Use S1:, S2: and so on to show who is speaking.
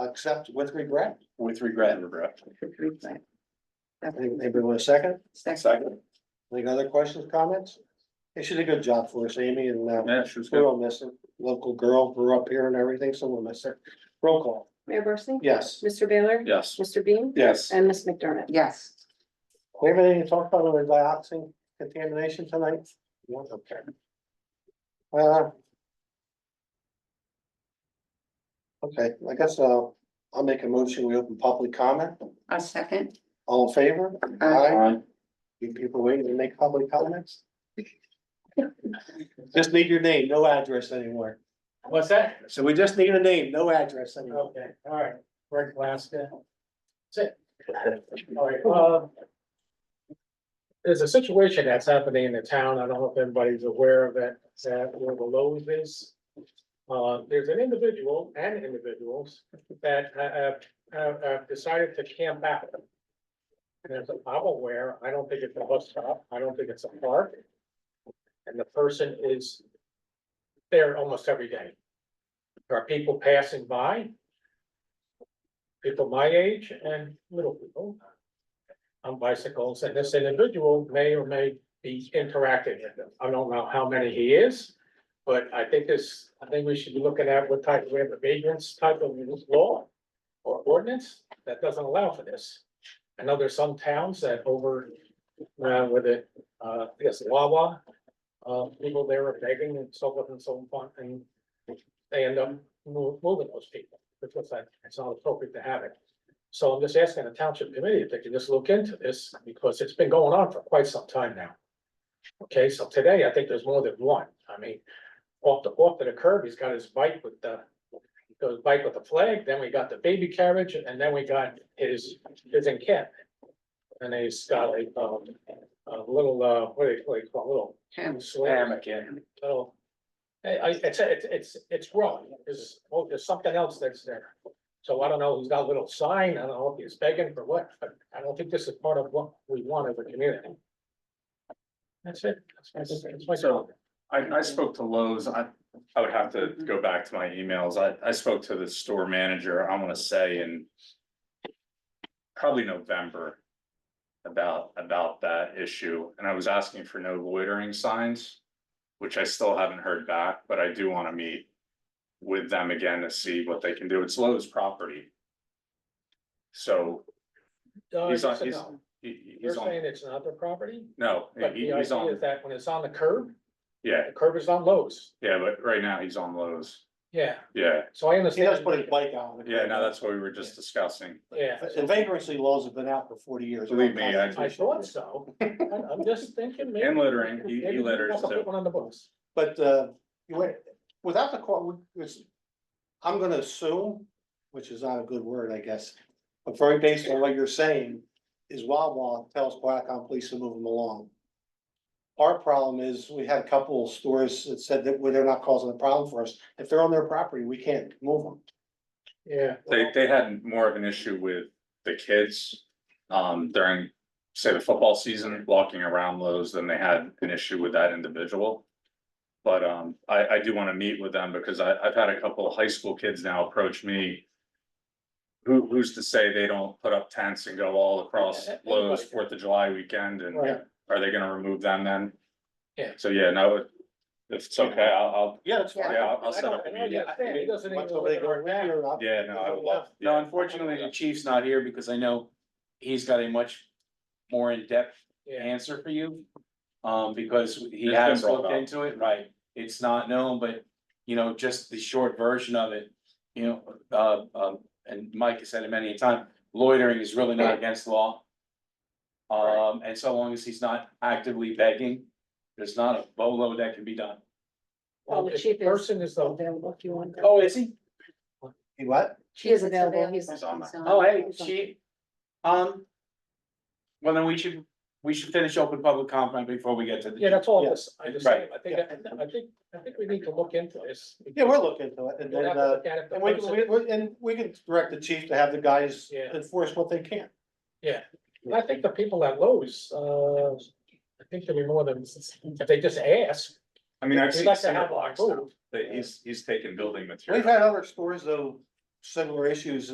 S1: accept with regret.
S2: with regret. Regret.
S1: I think Maybe with a second.
S3: Second.
S2: Second.
S1: Any other questions, comments? Hey, she did a good job for us, Amy, and uh,
S2: Yeah, she was
S1: we're
S2: good.
S1: all missing. Local girl grew up here and everything, so we'll miss her. Roll call.
S4: Mayor Barsney?
S1: Yes.
S4: Mr. Baylor?
S2: Yes.
S4: Mr. Bean?
S2: Yes.
S4: And Miss McDermott?
S3: Yes,
S1: We have anything to talk about on the dioxin contamination tonight? No, okay. Uh. Okay, I guess uh, I'll make a motion. We open public comment.
S3: a second. Uh,
S1: All in favor?
S3: Aye.
S1: You people waiting to make public comments? Just need your name, no address anymore.
S5: What's that?
S1: So we just need a name, no address anymore.
S5: Okay, all right, Greg Glasgow. That's it. All right, uh. There's a situation that's happening in the town. I don't know if anybody's aware of it, that where the Lowe's is. Uh, there's an individual and individuals that ha- have, have, have decided to camp out. And as I'm aware, I don't think it's a bus stop. I don't think it's a park. And the person is there almost every day. There are people passing by. People my age and little people. On bicycles, and this individual may or may be interacting with them. I don't know how many he is. But I think this, I think we should be looking at what type, we have a vagrants type of law. Or ordinance that doesn't allow for this. I know there's some towns that over, uh, with it, uh, I guess Wawa. Uh, people there are begging and so forth and so on, and they end up mo- moving those people, because that, it's not appropriate to have it. So I'm just asking the township committee if they can just look into this, because it's been going on for quite some time now. Okay, so today, I think there's more than one, I mean, off the, off to the curb, he's got his bike with the. Goes bike with the flag, then we got the baby carriage, and then we got his, his encampment. And he's got a, um, a little, uh, what do you, what do you call, it? little
S3: Yes.
S5: Hammock, yeah. So. I, I, it's, it's, it's, it's wrong, there's, well, there's something else that's there. So I don't know, he's got a little sign, I don't know if he's begging for what, but I don't think this is part of what we want as a community. That's it, that's my, that's my.
S2: So- I, I spoke to Lowe's. I, I would have to go back to my emails. I, I spoke to the store manager, I wanna say in probably November about, about that issue. And I was asking for no loitering signs, which I still haven't heard back, but I do wanna meet with them again to see what they can do. It's Lowe's property. So
S5: Uh,
S2: he's on-
S5: yes and
S2: he's-
S5: no.
S2: he,
S5: You're
S2: he's on,
S5: saying it's not their property,
S2: no,
S5: but
S2: he-
S5: the
S2: he's
S5: idea
S2: on,
S5: is that when it's on the curb,
S2: yeah,
S5: the curb is on Lowe's,
S2: yeah, but right now he's on Lowe's.
S5: yeah,
S2: Yeah,
S5: so I
S1: He does
S5: understand.
S1: put his bike out.
S2: yeah, no, that's what we were just discussing.
S5: Yeah.
S1: The vagrancy laws have been out for forty years.
S2: Believe me, I-
S5: I thought so, I'm, I'm just thinking. maybe-
S2: And littering, he,
S5: maybe
S2: he
S5: we
S2: litters
S5: have to put
S2: too.
S5: One on the books.
S1: But uh, you went, without the court, it's, I'm gonna assume, which is not a good word, I guess. But very based on what you're saying, is Wawa tells Blackhawk Police to move them along. Our problem is, we had a couple of stores that said that well, they're not causing a problem for us. If they're on their property, we can't move them.
S5: Yeah,
S2: They, they had more of an issue with the kids, um, during, say, the football season, walking around Lowe's than they had an issue with that individual. But, um, I, I do wanna meet with them because I, I've had a couple of high school kids now approach me. Who, who's to say they don't put up tents and go all across
S5: Yeah, anybody
S2: Lowe's
S5: can.
S2: Fourth of July weekend and
S5: Right.
S2: are they gonna remove them then?
S5: Yeah.
S2: So, yeah, no, if it's okay, I'll, I'll,
S1: Yeah, that's
S3: Yeah.
S1: fine.
S2: Yeah, I'll- I'll
S5: I
S2: set
S5: don't-
S2: up
S5: I
S2: a
S5: don't
S2: meeting.
S5: understand. He doesn't even
S1: Want
S5: know
S1: somebody to
S5: whether
S1: go
S5: or
S1: with you
S5: not.
S1: or not?
S2: Yeah, no, I would love.
S6: No, unfortunately, the chief's not here because I know he's got a much more in-depth
S5: Yeah,
S6: answer for you. Um, because he
S2: been
S6: has
S2: brought
S6: looked
S2: up.
S6: into it, right? It's not known, but, you know, just the short version of it, you know, uh, um, and Mike has said it many a time, loitering is really not against law. Um, and so long as he's not actively begging, there's not a bolo that can be done.
S4: Well, the
S5: if
S4: chief is-
S5: Person is the,
S4: Available if you want.
S6: Oh, is he?
S1: You what?
S4: She is available. He's-
S2: He's on that.
S6: Oh, hey, she, um. Well, then we should, we should finish open public comment before we get to the.
S5: yeah, that's all this, I just, I
S6: Right.
S5: think, I think, I think we need to look into this.
S1: Yeah, we're looking into it and
S5: We'll
S1: then
S5: have to
S1: uh.
S5: look at it, the
S1: And we,
S5: person-
S1: we, we- and we can direct the chief to have the guys
S5: Yeah.
S1: enforce what they can.
S5: And I think the people at Lowe's, uh, I think there'll be more than, if they just ask,
S2: I mean, I've
S5: we'd
S2: seen.
S5: like to
S2: cinder
S5: have
S2: blocks
S5: our
S2: now.
S5: food.
S2: that he's, he's taking building material.
S1: We've had other stores though, similar issues